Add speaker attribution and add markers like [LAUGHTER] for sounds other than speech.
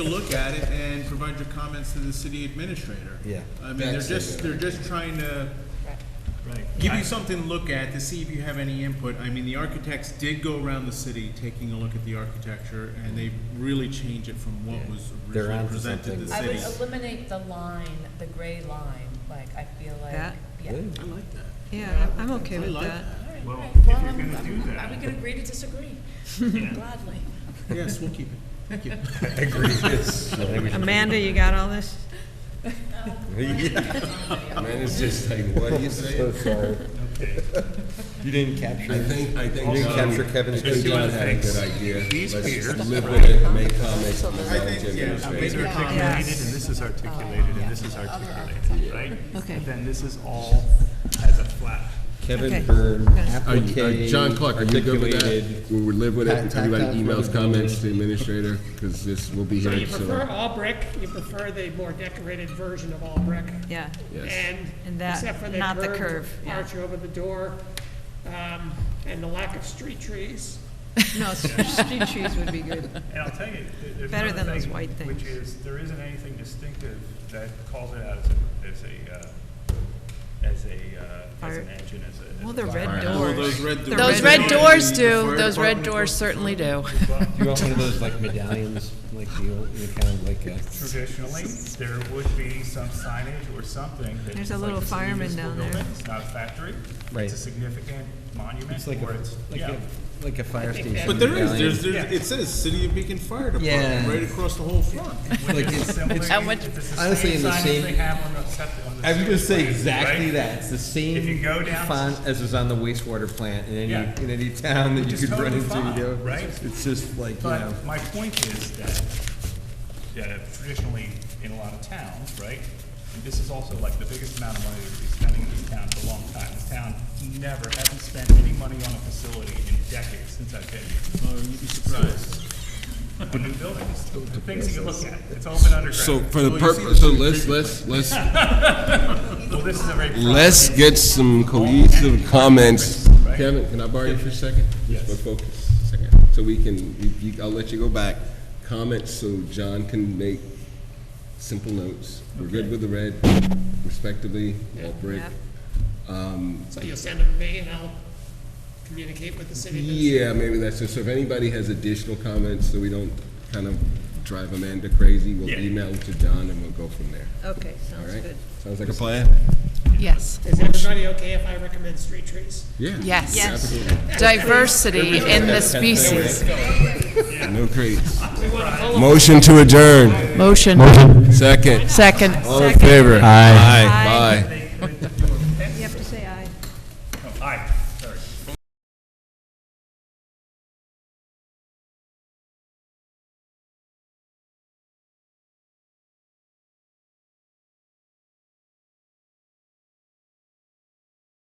Speaker 1: to look at it and provide your comments to the city administrator.
Speaker 2: Yeah.
Speaker 1: I mean, they're
Speaker 2: That's a
Speaker 1: just, they're just trying to
Speaker 3: Right.
Speaker 1: give you something to look at to see if you have any input. I mean, the architects did go around the city taking a look at the architecture, and they really changed it from what was
Speaker 2: They're
Speaker 1: originally
Speaker 2: onto
Speaker 1: presented to
Speaker 2: something.
Speaker 1: the
Speaker 4: I
Speaker 1: city.
Speaker 4: would eliminate the line, the gray line, like, I feel like,
Speaker 5: That?
Speaker 4: yeah.
Speaker 2: Good.
Speaker 1: I like that.
Speaker 5: Yeah, I'm I'm okay
Speaker 1: I
Speaker 5: with
Speaker 1: like
Speaker 5: that.
Speaker 4: All right,
Speaker 3: Well,
Speaker 4: all right.
Speaker 3: if
Speaker 4: Well,
Speaker 3: you're
Speaker 4: I'm-
Speaker 3: gonna
Speaker 4: I'm-
Speaker 3: do
Speaker 4: Are
Speaker 3: that-
Speaker 4: we gonna agree to
Speaker 3: [LAUGHS]
Speaker 4: disagree? Gladly.
Speaker 1: Yes, we'll keep it. Thank
Speaker 2: [LAUGHS]
Speaker 1: you. [LAUGHS]
Speaker 5: Amanda, you got all this?
Speaker 6: Man, it's just like, what do
Speaker 2: [LAUGHS]
Speaker 6: you
Speaker 2: So
Speaker 6: say?
Speaker 2: sorry.
Speaker 3: Okay.
Speaker 2: You didn't capture
Speaker 6: I think, I think.
Speaker 2: You didn't
Speaker 6: John-
Speaker 2: capture Kevin's
Speaker 6: I think
Speaker 2: good
Speaker 6: John had a
Speaker 3: thanks.
Speaker 6: good idea.
Speaker 3: He's here.
Speaker 6: Let's live with it, make comments on the
Speaker 1: I think, yeah, I
Speaker 6: administration.
Speaker 1: mean, they're taking-
Speaker 3: Articulated, and this is articulated, and this is articulated, right?
Speaker 5: Okay.
Speaker 3: And then this is all as a flat.
Speaker 5: Okay.
Speaker 2: Kevin Byrne,
Speaker 6: Are you- are-
Speaker 2: applique.
Speaker 6: John Clark, are you good with
Speaker 2: articulated.
Speaker 6: that? We would live with it,
Speaker 2: Tact-
Speaker 6: everybody
Speaker 2: tactile
Speaker 6: emails
Speaker 2: rhythm.
Speaker 6: comments to the administrator, because this will be
Speaker 7: So
Speaker 6: here,
Speaker 7: you prefer
Speaker 6: so.
Speaker 7: all brick, you prefer the more decorated version of all brick?
Speaker 5: Yeah,
Speaker 6: Yes.
Speaker 7: And,
Speaker 5: And that-
Speaker 7: except for the
Speaker 5: not the
Speaker 7: curved
Speaker 5: curve, yeah.
Speaker 7: arch over the door, um, and the lack of street trees.
Speaker 5: no, street trees would be good.
Speaker 3: And I'll tell you, th- there's
Speaker 5: Better than
Speaker 3: another
Speaker 5: those
Speaker 3: thing,
Speaker 5: white
Speaker 3: Which
Speaker 5: things.
Speaker 3: is, there isn't anything distinctive that calls it out as a, as a, uh, as a, uh, as
Speaker 5: Fire-
Speaker 3: an engine, as a. as
Speaker 5: Well,
Speaker 3: a
Speaker 5: they're red
Speaker 3: fire.
Speaker 1: Well, those
Speaker 5: doors.
Speaker 1: red
Speaker 5: The
Speaker 1: doors-
Speaker 5: Those red
Speaker 4: doors
Speaker 1: The
Speaker 4: do,
Speaker 1: fire
Speaker 4: those red
Speaker 1: department-
Speaker 4: doors certainly do. [LAUGHS]
Speaker 2: You want one of those like medallions, like the old, you know, kind of like a.
Speaker 3: Traditionally, there would be some signage or something that.
Speaker 5: There's
Speaker 3: it's
Speaker 5: a
Speaker 3: like
Speaker 5: little
Speaker 3: it's
Speaker 5: fireman
Speaker 3: municipal
Speaker 5: down there.
Speaker 3: building, It's not a factory.
Speaker 2: Right.
Speaker 3: It's a significant monument,
Speaker 2: It's like
Speaker 3: or
Speaker 2: a,
Speaker 3: it's,
Speaker 2: like
Speaker 3: yeah.
Speaker 2: a, like a fire station.
Speaker 1: But there is,
Speaker 2: medallion.
Speaker 1: there's, there's, it says City of Beacon Fire Department,
Speaker 2: Yeah.
Speaker 1: right across the whole front.
Speaker 2: Like it's-
Speaker 3: Similar,
Speaker 2: it's-
Speaker 4: How much-
Speaker 3: it's the same
Speaker 2: honestly in the
Speaker 3: signage
Speaker 2: same-
Speaker 3: they have on the septic- on the
Speaker 2: I was gonna
Speaker 3: septic
Speaker 2: say
Speaker 3: plant,
Speaker 2: exactly
Speaker 3: right?
Speaker 2: that. It's the same
Speaker 3: If you go down-
Speaker 2: font as is on the wastewater plant in any
Speaker 3: Yeah.
Speaker 2: in any town that
Speaker 3: Which
Speaker 2: you
Speaker 3: is
Speaker 2: could run
Speaker 3: totally
Speaker 2: into.
Speaker 3: fine,
Speaker 2: you know?
Speaker 3: right?
Speaker 2: It's just like you know.
Speaker 3: But my point is that, that traditionally, in a lot of towns, right, and this is also like the biggest amount of money that we've been spending in this town for a long time. This town never, hasn't spent any money on a facility in decades since I've been here.
Speaker 1: Oh, you'd be surprised.
Speaker 3: A new building, it's the
Speaker 1: [LAUGHS]
Speaker 3: things you can look at, it's all been underground.
Speaker 6: So for the
Speaker 1: Well, you see
Speaker 6: purpose, so
Speaker 1: the-
Speaker 6: let's, let's, let's,
Speaker 3: Well, this is a very.
Speaker 6: let's get some cohesive comments.
Speaker 3: Right.
Speaker 6: Kevin, can I borrow you for a second?
Speaker 3: Yes.
Speaker 6: Just for focus, a second, so we can, you- you- I'll let you go back. Comments, so John can make simple notes. We're good with the red, respectively, all brick.
Speaker 5: Yep.
Speaker 7: So you'll send them to me and I'll communicate with the city. administrator.
Speaker 6: Yeah, maybe that's it. So if anybody has additional comments, so we don't kind of drive Amanda crazy, we'll
Speaker 3: Yeah.
Speaker 6: email them to John and we'll go from there.
Speaker 5: Okay,
Speaker 6: All
Speaker 5: sounds
Speaker 6: right?
Speaker 5: good.
Speaker 6: Sounds like a plan?
Speaker 4: Yes,
Speaker 7: Is everybody okay if I recommend street trees?
Speaker 6: Yeah.
Speaker 4: yes.
Speaker 6: Absolutely.
Speaker 4: Diversity in the species.
Speaker 6: No crates.
Speaker 7: We want to pull
Speaker 6: Motion to adjourn.
Speaker 4: Motion.
Speaker 6: Second.
Speaker 4: Second.
Speaker 6: All in favor? Aye. Bye.